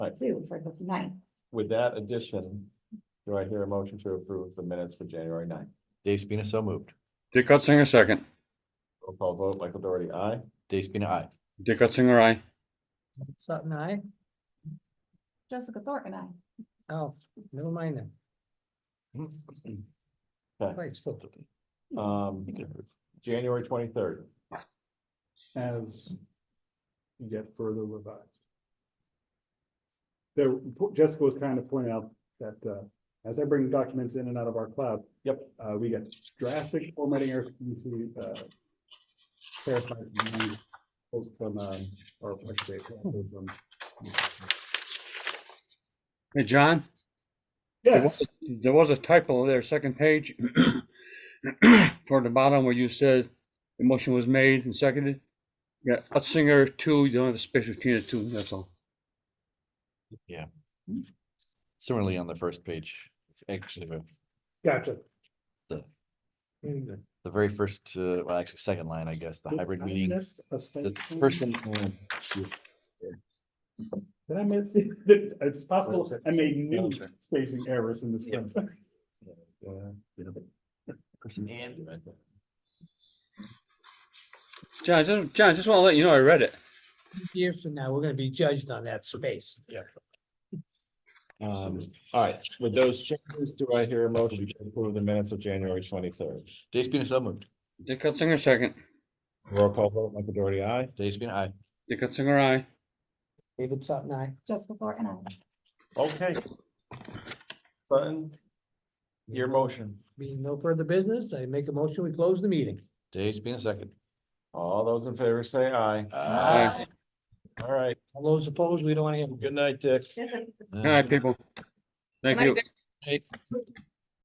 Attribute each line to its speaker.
Speaker 1: Right.
Speaker 2: due for the ninth.
Speaker 1: With that addition, do I hear a motion to approve the minutes for January 9th?
Speaker 3: Dave Spina, so moved.
Speaker 4: Dick Utzinger, second.
Speaker 1: Roll call vote, Michael Doherty, aye.
Speaker 3: Dave Spina, aye.
Speaker 4: Dick Utzinger, aye.
Speaker 5: Sutton, I,
Speaker 2: Jessica Thornton, I.
Speaker 5: oh, never mind then.
Speaker 1: Okay,
Speaker 5: Wait, still,
Speaker 1: um, January twenty-third,
Speaker 6: as you get further revised. There, Jessica was kind of pointing out that, uh, as I bring documents in and out of our cloud.
Speaker 1: Yep.
Speaker 6: Uh, we get drastic formatting errors, you see, uh, clarified view, post from, um, or I should say, post from-
Speaker 4: Hey, John? there
Speaker 6: Yes,
Speaker 4: was- There was a typo there, second page. Toward the bottom where you said the motion was made and seconded. Yeah, Utzinger, two, you don't have a space between the two, that's all.
Speaker 3: Similarly on the first page, actually, the-
Speaker 6: gotcha.
Speaker 3: the very first, uh, well, actually, second line, I guess, the hybrid
Speaker 6: Did I
Speaker 3: meeting.
Speaker 6: miss a space
Speaker 3: The
Speaker 6: in-
Speaker 3: first one,
Speaker 6: Did I miss, it's possible I made new spacing errors in this.
Speaker 3: Yeah.
Speaker 6: one.
Speaker 3: person
Speaker 1: and
Speaker 4: John, just, John, just want to let you know I read it.
Speaker 5: years from now, we're gonna be judged on that space. Yeah.
Speaker 1: Um, all right, with those changes, do I hear a motion to approve the minutes of January twenty-third?
Speaker 3: Dave Spina, so moved.
Speaker 4: Dick Utzinger, second.
Speaker 1: Roll call vote, Michael Doherty, aye.
Speaker 3: Dave Spina, aye.
Speaker 4: Dick Utzinger, aye.
Speaker 5: David Sutton, I,
Speaker 2: Jessica Thornton, I.
Speaker 1: Okay. Button. Your motion.
Speaker 5: being no further business, I make a motion, we close the meeting.
Speaker 3: Dave Spina, second.
Speaker 1: All those in favor say aye.
Speaker 3: Aye.
Speaker 1: All right,
Speaker 5: All those opposed, we don't wanna hear them.
Speaker 1: good night, Dick.
Speaker 4: All right, people. Thank you.